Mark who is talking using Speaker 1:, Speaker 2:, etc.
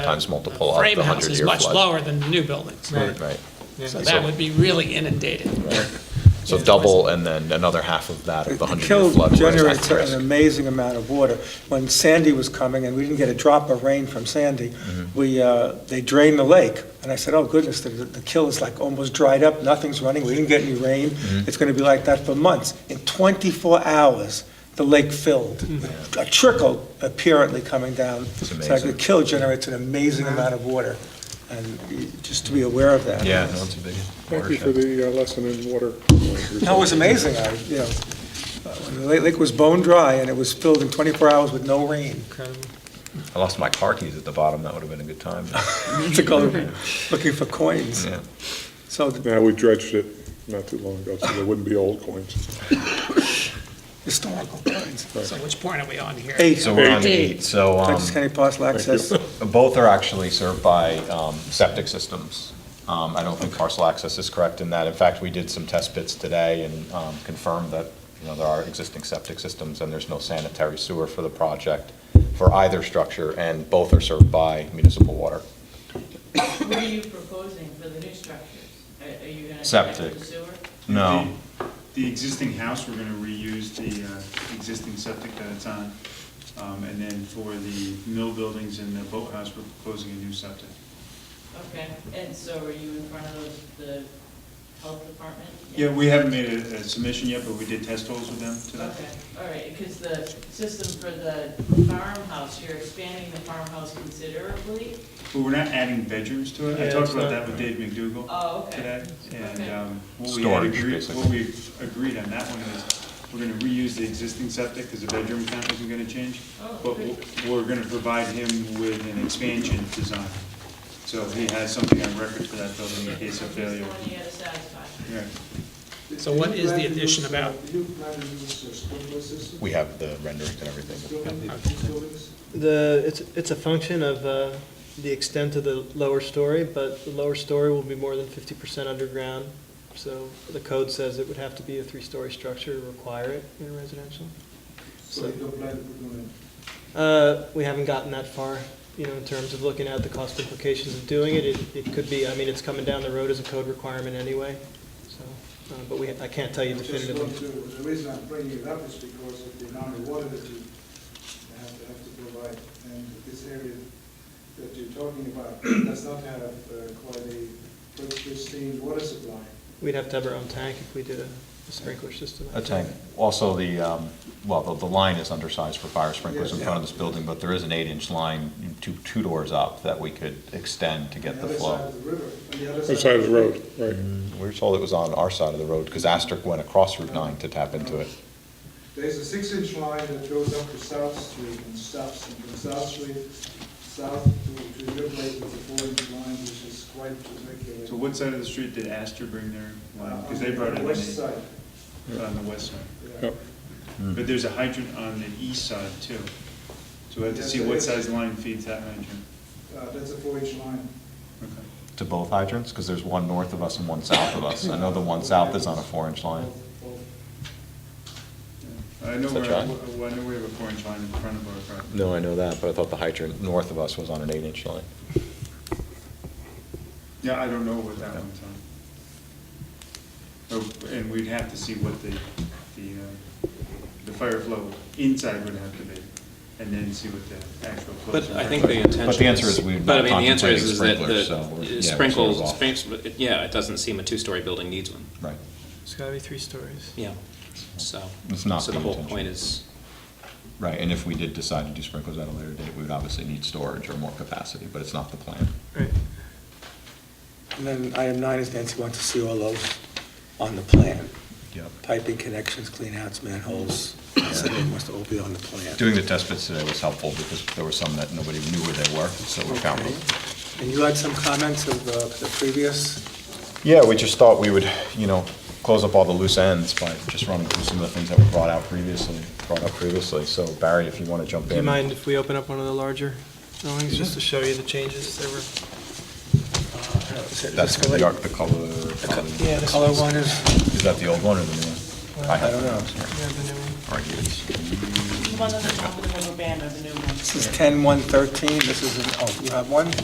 Speaker 1: times multiple of
Speaker 2: frame
Speaker 1: the
Speaker 2: house
Speaker 1: hundred
Speaker 2: is
Speaker 1: year
Speaker 2: much
Speaker 1: flood.
Speaker 2: lower than the new buildings.
Speaker 3: Right.
Speaker 1: Right,
Speaker 2: So
Speaker 1: Yeah.
Speaker 2: that would be really inundated.
Speaker 1: so double and then another half of that of the hundred year
Speaker 3: Kill
Speaker 1: flood. where it's
Speaker 3: generates
Speaker 1: at
Speaker 3: an
Speaker 1: risk.
Speaker 3: amazing amount of water. When Sandy was coming, and we didn't get a drop of rain from Sandy,
Speaker 1: Mm-hmm.
Speaker 3: we, uh, they drained the lake, and I said, oh goodness, the, the kill is like almost dried up, nothing's running, we didn't get any rain,
Speaker 1: Mm-hmm.
Speaker 3: it's gonna be like that for months. In 24 hours, the lake filled, a trickle apparently coming down.
Speaker 1: Mm-hmm. It's
Speaker 3: So like,
Speaker 1: amazing.
Speaker 3: the kill generates an amazing amount of water, and you- just to be aware of that.
Speaker 1: Yeah, no, it's a big
Speaker 4: Thank you for
Speaker 1: watershed.
Speaker 4: the uh, lesson in water.
Speaker 3: No, it was amazing, I, you know, uh, when the lake, lake was bone dry, and it was filled in 24 hours with no rain.
Speaker 1: I lost my car keys at the bottom, that would have been a good time.
Speaker 3: To go looking for coins.
Speaker 1: Yeah.
Speaker 3: So the
Speaker 4: Now, we dredged it not too long ago, so there wouldn't be old coins.
Speaker 3: historical coins.
Speaker 2: So which point are we on here?
Speaker 3: Eight,
Speaker 1: So we're on
Speaker 2: Eight.
Speaker 1: eight, so, um,
Speaker 3: Dutchess County Parcel Access,
Speaker 1: both are actually served by, um, septic systems. Um, I don't think parcel access is correct in that. In fact, we did some test bits today and, um, confirmed that, you know, there are existing septic systems and there's no sanitary sewer for the project for either structure, and both are served by municipal water.
Speaker 5: What are you proposing for the new structures? Are are you going to connect
Speaker 1: Septic.
Speaker 5: with the sewer?
Speaker 1: No.
Speaker 6: The- The existing house, we're gonna reuse the uh, existing septic that it's on. Um, And then for the mill buildings and the boathouse, we're proposing a new septic.
Speaker 5: Okay, and so are you in front of the health department?
Speaker 6: Yeah, we haven't made a a submission yet, but we did test holes with them today.
Speaker 5: Okay, all right, because the system for the farmhouse, you're expanding the farmhouse considerably?
Speaker 6: But we're not adding bedrooms to it. I talked about that with Dave McDougal
Speaker 5: Oh, okay.
Speaker 6: today. And
Speaker 5: Okay.
Speaker 6: um, what we had
Speaker 1: Storage,
Speaker 6: agreed,
Speaker 1: basically.
Speaker 6: what we agreed on that one is, we're gonna reuse the existing septic because the bedroom count isn't gonna change.
Speaker 5: Oh,
Speaker 6: But
Speaker 5: good.
Speaker 6: we're- we're gonna provide him with an expansion design. So he has something on record for that building in case of failure.
Speaker 5: Just one you got to satisfy.
Speaker 6: Yeah.
Speaker 2: So what is the addition about?
Speaker 1: We have the renderings and everything.
Speaker 7: The, it's, it's a function of uh, the extent of the lower story, but the lower story will be more than fifty percent underground. So the code says it would have to be a three-story structure to require it in residential. So uh, we haven't gotten that far, you know, in terms of looking at the cost implications of doing it. It, it could be, I mean, it's coming down the road as a code requirement anyway, so, uh, but we, I can't tell you
Speaker 8: I just
Speaker 7: definitively.
Speaker 8: want to, the reason I'm bringing it up is because of the amount of water that you have to, have to provide. And this area that you're talking about does not have uh, quite a good pristine water supply.
Speaker 7: We'd have to have our own tank if we did a a sprinkler system.
Speaker 1: A tank. Also, the, um, well, the the line is undersized for fire sprinklers in front of this building, but there is an eight-inch line, two, two doors up, that we could extend to get the
Speaker 8: On the other side
Speaker 1: flow.
Speaker 8: of the river, on the other side.
Speaker 4: Outside of the road, right.
Speaker 1: We were told it was on our side of the road, because Asterisk went across Route 9 to tap into it.
Speaker 8: There's a six-inch line that goes up to South Street and stops, and from South Street, south to, to your place is a four-inch line, which is quite ridiculous.
Speaker 6: So what side of the street did Astor bring their line? Because they brought it in.
Speaker 8: Uh, West side,
Speaker 6: On the west side.
Speaker 8: yeah.
Speaker 4: Yep.
Speaker 1: Hmm.
Speaker 6: But there's a hydrant on the east side too. So we have to
Speaker 8: Yes,
Speaker 6: see
Speaker 8: there
Speaker 6: what
Speaker 8: is.
Speaker 6: size line feeds that hydrant.
Speaker 8: Uh, That's a four-inch line.
Speaker 6: Okay.
Speaker 1: To both hydrants, because there's one north of us and one south of us. I know the one south is on a four-inch line.
Speaker 8: Both- both.
Speaker 6: Yeah. I know
Speaker 1: Is that
Speaker 6: where,
Speaker 1: right?
Speaker 6: I know we have a four-inch line in front of our property.
Speaker 1: No, I know that, but I thought the hydrant north of us was on an eight-inch line.
Speaker 6: Yeah, I don't know what that one's on. Oh, And we'd have to see what the, the, uh, the fire flow inside would have to be, and then see what the actual. flow is.
Speaker 9: But I think the intention
Speaker 1: But the answer is we're
Speaker 9: But I
Speaker 1: not
Speaker 9: mean, the answer is is that
Speaker 1: contemplating sprinklers, so we're- yeah,
Speaker 9: the
Speaker 1: we're
Speaker 9: sprinkles,
Speaker 1: sort of
Speaker 9: sprinklers- yeah, it doesn't seem a two-story building needs one,
Speaker 1: Right.
Speaker 7: It's gotta be three stories.
Speaker 9: yeah, so.
Speaker 1: It's not
Speaker 9: So the
Speaker 1: the
Speaker 9: whole
Speaker 1: intention.
Speaker 9: point is,
Speaker 1: Right, and if we did decide to do sprinklers at a later date, we would obviously need storage or more capacity, but it's not the plan.
Speaker 7: Right.
Speaker 3: and then item nine is Nancy wants to see all those on the plan.
Speaker 1: Yep.
Speaker 3: Piping connections, clean outs, manholes, so they must all be on the plan.
Speaker 1: Doing the test bits today was helpful because there were some that nobody knew where they were, so we found them.
Speaker 3: And you had some comments of uh, the previous,
Speaker 1: Yeah, we just thought we would, you know, close up all the loose ends by just running through some of the things that were brought out previously, brought up previously. So Barry, if you want to jump in.
Speaker 7: Do you mind if we open up one of the larger drawings, just to show you the changes that were?
Speaker 3: uh,
Speaker 1: That's the arc, the color. probably.
Speaker 7: Yeah, Uh, this
Speaker 3: color
Speaker 7: one's-
Speaker 3: one is,
Speaker 1: Is that the old one or the new one?
Speaker 3: I don't know.
Speaker 1: Argues.
Speaker 5: one on the top of the rubber band of the new one.
Speaker 3: This is 10-113, this is, an- oh, you have one?